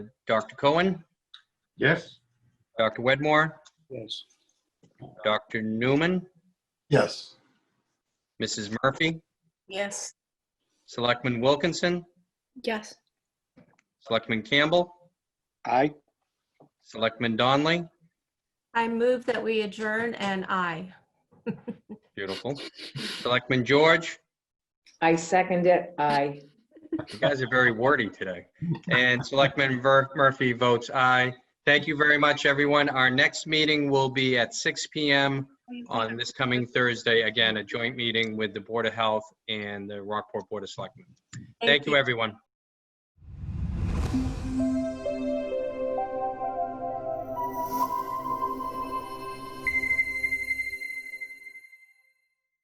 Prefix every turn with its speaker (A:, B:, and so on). A: Dr. Cohen,
B: Yes?
A: Dr. Wedmore,
B: Yes.
A: Dr. Newman,
B: Yes.
A: Mrs. Murphy,
C: Yes.
A: Selectman Wilkinson,
C: Yes.
A: Selectman Campbell,
B: Aye.
A: Selectman Donley.
C: I move that we adjourn and I.
A: Beautiful. Selectman George,
D: I second it, aye.
A: you guys are very wordy today. And Selectman Ver- Murphy votes aye. Thank you very much, everyone. Our next meeting will be at 6 PM on this coming Thursday. Again, a joint meeting with the Board of Health and the Rockport Board of Selectmen. Thank you, everyone.